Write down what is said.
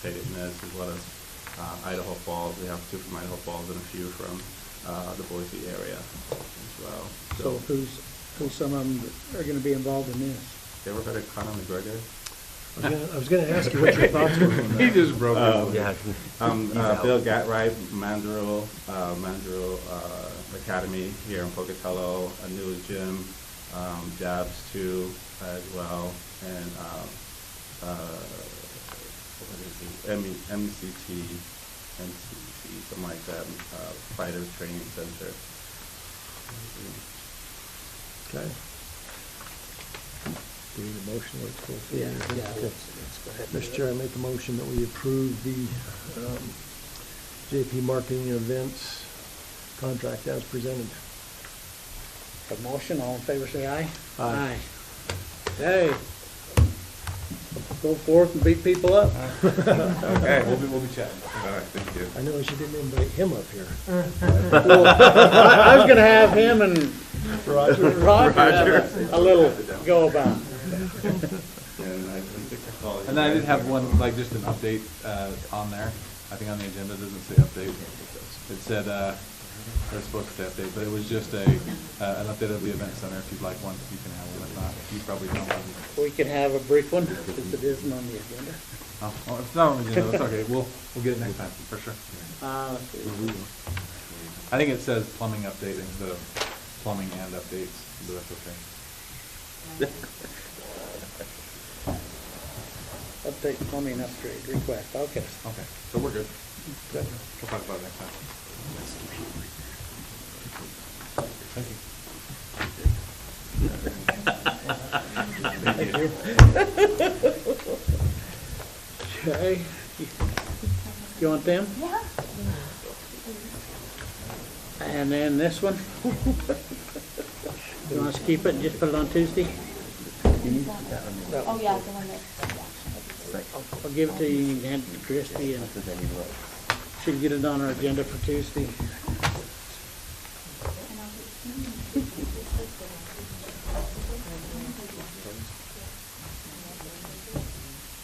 state, and as as well as uh, Idaho Falls. We have two from Idaho Falls and a few from uh, the Boise area as well. So who's, who's some of them are gonna be involved in this? You ever heard of Conor McGregor? I was gonna- I was going to ask you what your thoughts were on that. just broke Um, Yeah. Um, He's uh, out. Bill Gatright, Mandrill, uh, Mandrill uh, Academy here in Pocatello, a new gym, um, Jabs too as well, and um, uh, what is it? M- E MCT, MCT, something like that, uh, Fighter Training Center. Okay. Do we need a motion or it's full? Yeah, yeah, Okay. let's, let's go ahead. and do Mr. it. Chair, I make a motion that we approve the um, JP Marketing Events contract as presented. A motion, all in favor, say aye. Aye. Hey, go forth and beat people up. Okay, we'll be, we'll be chatting. All right, thank you. I noticed you didn't invite him up here. Well, I I was gonna have him and Roger? Roger have a a little go about. And I think I call you And then I did guys have later. one, like, just an update, uh, on there. I think on the agenda, it doesn't say update. It said, uh, it was supposed to say update, but it was just a, uh, an update of the event center. If you'd like one, you can have one. If not, you probably don't have it. We could have a brief one, since it isn't on the agenda. Oh, well, it's not on the agenda. It's okay. We'll, we'll get it next time, for sure. Uh, let's see. I think it says plumbing update instead of plumbing and updates, but that's okay. Update plumbing upgrade request, okay. Okay, so we're good. Oh, Good. We'll talk about it next time. Thank you. Okay, You- you want them? Yeah. And then this one? You want us to keep it and just put it on Tuesday? Oh, yeah, the one that, yeah. I'll give it to you, you can hand it to Christie, and she'll get it on our agenda for Tuesday. And I'll get- mm, it's like the-